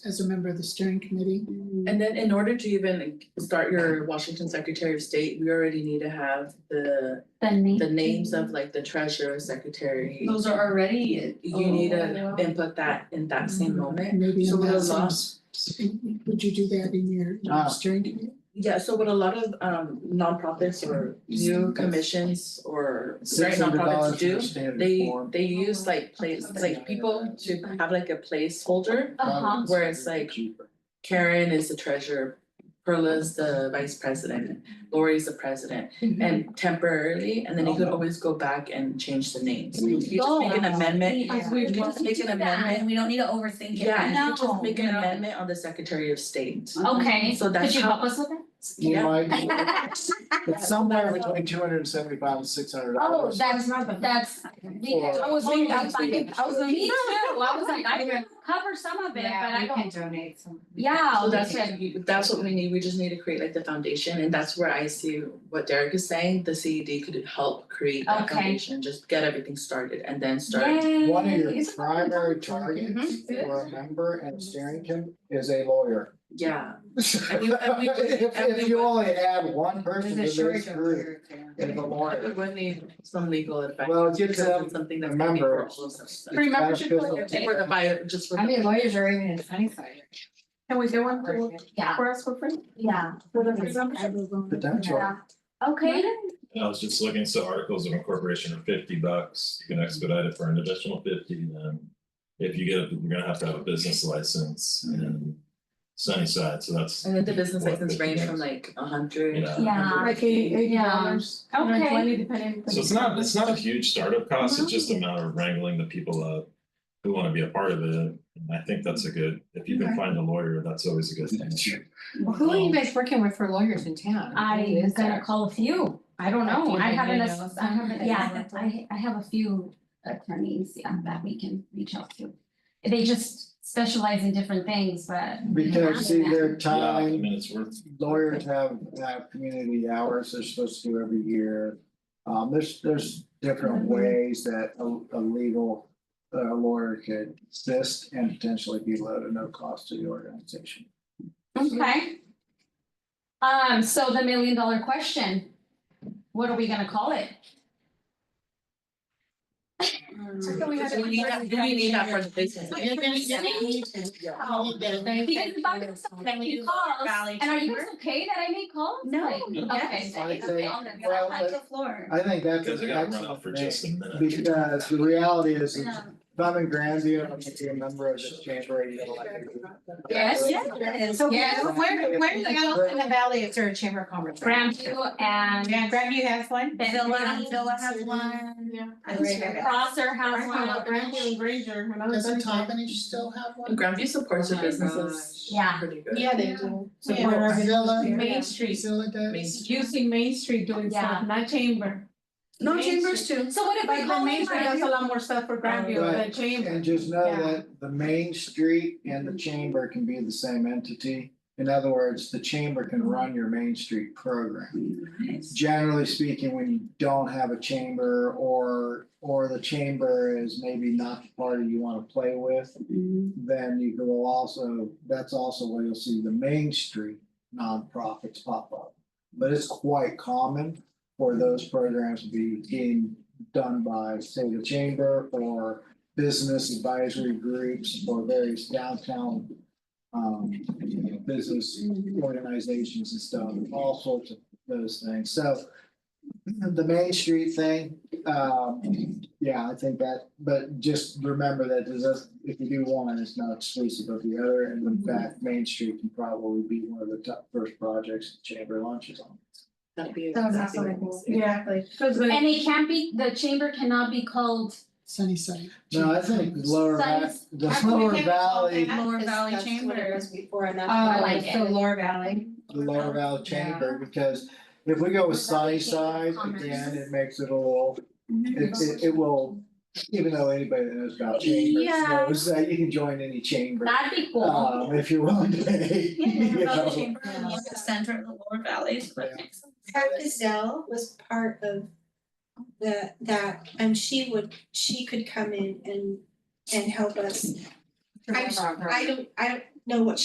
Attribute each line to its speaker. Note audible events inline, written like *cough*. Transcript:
Speaker 1: as a member of the steering committee.
Speaker 2: Mm-hmm.
Speaker 3: And then in order to even start your Washington Secretary of State, we already need to have the,
Speaker 4: The name.
Speaker 3: the names of like the treasurer, secretary.
Speaker 5: Those are already.
Speaker 2: Oh,
Speaker 3: You need to input that in that same moment.
Speaker 1: And maybe
Speaker 3: So
Speaker 1: in
Speaker 3: what
Speaker 1: that
Speaker 3: a lot-
Speaker 1: sense, would you do that in your
Speaker 3: Ah.
Speaker 1: steering committee?
Speaker 3: Yeah, so what a lot of um nonprofits or new commissions or right
Speaker 6: Six hundred
Speaker 3: nonprofits
Speaker 6: dollars for
Speaker 3: do,
Speaker 6: the standard
Speaker 3: they
Speaker 6: form.
Speaker 3: they use like place, like people to have like a placeholder.
Speaker 4: Uh-huh.
Speaker 3: where it's like- Karen is the treasurer, Perla's the vice president, Lori's the president. And temporarily, and then you could always go back and change the names. You just make an amendment,
Speaker 4: Yeah.
Speaker 5: We
Speaker 3: you just make an amendment.
Speaker 5: And we don't need to overthink it.
Speaker 3: Yeah, Oh, you could just
Speaker 4: No.
Speaker 3: make an amendment on the Secretary of State.
Speaker 4: Okay,
Speaker 3: So
Speaker 4: could
Speaker 3: that's
Speaker 4: you
Speaker 3: how-
Speaker 4: help us with it?
Speaker 3: Yeah.
Speaker 6: You might,
Speaker 3: *laughs*
Speaker 4: Oh,
Speaker 6: it's somewhere between two hundred and seventy five and six hundred
Speaker 3: Oh,
Speaker 6: dollars.
Speaker 4: that's, that's. we-
Speaker 6: Or-
Speaker 2: I was thinking, I was
Speaker 4: totally
Speaker 2: thinking, I was
Speaker 4: fine. Me
Speaker 2: thinking.
Speaker 4: too, I was like, I can cover some of it, but I
Speaker 2: You can
Speaker 4: don't,
Speaker 2: donate some.
Speaker 4: yeah, oh,
Speaker 3: So that's
Speaker 4: okay.
Speaker 3: what you, that's what we need, we just need to create like the foundation, and that's where I see what Derek is saying, the CED could help create that
Speaker 4: Okay.
Speaker 3: foundation, just get everything started and then start.
Speaker 6: One of
Speaker 4: Yay.
Speaker 6: your
Speaker 3: Mm-hmm.
Speaker 6: primary targets for a member and steering committee is a lawyer. *laughs*
Speaker 3: Yeah, And we- and we-
Speaker 6: If
Speaker 3: and
Speaker 6: if
Speaker 3: we-
Speaker 6: you only add one person to
Speaker 2: There's a
Speaker 6: this
Speaker 2: shortage of
Speaker 6: group,
Speaker 2: here, Karen.
Speaker 6: it's a
Speaker 3: we
Speaker 6: lawyer.
Speaker 3: would need some legal advice.
Speaker 6: Well, it gives
Speaker 3: because
Speaker 6: them
Speaker 3: it's something that's
Speaker 6: a
Speaker 3: gonna be for
Speaker 6: member.
Speaker 3: all of us.
Speaker 6: Free membership for the-
Speaker 3: Just For the bio, just for.
Speaker 2: I
Speaker 3: the-
Speaker 2: mean, lawyers are even in Sunnyside.
Speaker 7: Can we do one for,
Speaker 4: Yeah,
Speaker 7: for us for free?
Speaker 4: yeah,
Speaker 7: For the free
Speaker 1: I
Speaker 7: membership?
Speaker 1: will volunteer.
Speaker 6: Potential.
Speaker 4: yeah. Okay,
Speaker 8: I was just looking, so articles of incorporation are fifty bucks, you can expedite it for an additional fifty, then. If you get, a- you're gonna have to have a business license in Sunnyside, so that's.
Speaker 3: Mm-hmm. And then the business
Speaker 8: what,
Speaker 3: license
Speaker 8: 50
Speaker 3: range
Speaker 8: bucks?
Speaker 3: from like a hundred.
Speaker 8: Yeah.
Speaker 4: Yeah.
Speaker 7: Like eighty, eighty dollars,
Speaker 4: Yeah.
Speaker 7: hundred and
Speaker 4: Okay.
Speaker 7: twenty depending.
Speaker 8: So it's not, it's not a huge startup cost,
Speaker 3: Uh-huh.
Speaker 8: it's just a matter of wrangling the people up who wanna be a part of it, and I think that's a good, if you can find a lawyer, that's always a good thing.
Speaker 2: Who are you guys working with for lawyers in town? Who
Speaker 4: I'm
Speaker 2: is
Speaker 4: gonna
Speaker 2: there?
Speaker 4: call a few, I don't
Speaker 2: A
Speaker 4: know,
Speaker 2: few
Speaker 4: I
Speaker 2: that
Speaker 4: haven't,
Speaker 2: you
Speaker 4: ass-
Speaker 2: know.
Speaker 4: I haven't, yeah, I I have a few attorneys, yeah, that we can reach out to. They just specialize in different things, but.
Speaker 6: Because see, their
Speaker 8: Yeah, I
Speaker 6: time,
Speaker 8: mean, it's worth,
Speaker 6: lawyers have have community hours they're supposed to do every year. Um, there's, there's different ways that a, a legal uh, lawyer could assist and potentially be low to no cost to the organization.
Speaker 4: Okay. Um, so the million dollar question, what are we gonna call it?
Speaker 3: We need that, we need that for the business.
Speaker 4: Because if I'm something you call, and are you guys okay that I make calls?
Speaker 5: No.
Speaker 4: Like,
Speaker 5: Yes.
Speaker 4: Okay.
Speaker 6: I'd say-
Speaker 4: On the-
Speaker 6: Well,
Speaker 5: Touch the floor.
Speaker 6: I think that's
Speaker 8: because I
Speaker 6: an
Speaker 8: gotta run out
Speaker 6: excellent
Speaker 8: for
Speaker 6: name,
Speaker 8: just a minute.
Speaker 6: because the reality is, is
Speaker 4: No.
Speaker 6: if I'm in Grandview, I'm gonna be a member of this chamber. you know, like-
Speaker 4: Yes.
Speaker 7: So
Speaker 4: Yes.
Speaker 7: where, where, where's else in the valley, is there a chamber of commerce?
Speaker 4: Grandview
Speaker 7: Yeah,
Speaker 4: and
Speaker 7: Grandview has one?
Speaker 4: Benton,
Speaker 5: Villa has one.
Speaker 7: Yeah.
Speaker 4: Crosser has
Speaker 7: Grandview
Speaker 4: one.
Speaker 7: and Granger, when I was.
Speaker 1: Doesn't
Speaker 7: there.
Speaker 1: Tompkins still have one?
Speaker 3: Grandview supports
Speaker 2: Oh
Speaker 3: your
Speaker 2: my
Speaker 3: businesses.
Speaker 4: Yeah.
Speaker 3: Pretty good.
Speaker 7: Yeah, they do.
Speaker 1: So
Speaker 7: Yeah.
Speaker 1: where are they?
Speaker 7: Zilla-
Speaker 1: Yeah.
Speaker 7: Main Street,
Speaker 1: Priscilla does?
Speaker 3: Main
Speaker 7: using Main Street doing
Speaker 4: Yeah.
Speaker 7: stuff, not chamber.
Speaker 5: No,
Speaker 7: Main
Speaker 5: chambers too.
Speaker 4: So what if I
Speaker 7: Like, the
Speaker 4: call
Speaker 7: Main
Speaker 4: it
Speaker 7: Street does a lot more stuff for Grandview than
Speaker 6: Right.
Speaker 7: chamber.
Speaker 6: And just know
Speaker 7: Yeah.
Speaker 6: that the main street and the chamber can be the same entity. In other words, the chamber can run your main street program. Generally speaking, when you don't have a chamber or, or the chamber is maybe not the party you want to play with, then you will also, that's also where you'll see the main street nonprofits pop up. But it's quite common for those programs to be being done by, say, the chamber or business advisory groups or various downtown um, you know, business organizations and stuff, all sorts of those things. So *clears throat* the Main Street thing, um, yeah, I think that, but just remember that there's a- if you do one, it's not exclusive of the other. And in fact, Main Street can probably be one of the top first projects the chamber launches on.
Speaker 3: That'd be
Speaker 7: That was
Speaker 3: exactly what I'm saying.
Speaker 7: Exactly.
Speaker 4: And it can't be, the chamber cannot be called
Speaker 1: Sunnyside.
Speaker 6: No, I think the lower, va-
Speaker 4: Suns-
Speaker 6: the lower valley, the
Speaker 5: Lower Valley Chamber.
Speaker 2: before and
Speaker 7: Oh,
Speaker 2: that's.
Speaker 4: I like
Speaker 7: so
Speaker 4: it.
Speaker 7: Lower Valley.
Speaker 6: lower valley chamber, because if we go with
Speaker 4: Lower Valley Chamber
Speaker 6: Sunnyside,
Speaker 4: of Commerce.
Speaker 6: again, it makes it a little
Speaker 5: Mm-hmm.
Speaker 6: It it it will, even though anybody that knows about chambers
Speaker 4: Yeah.
Speaker 6: knows that you can join any chamber.
Speaker 4: That'd be cool.
Speaker 6: Um, if you're willing to pay. *laughs* you know.
Speaker 5: The center of the lower valleys, but.
Speaker 9: Pat Gazelle was part of the, that, and she would, she could come in and, and help us. I'm, I don't, I don't, know what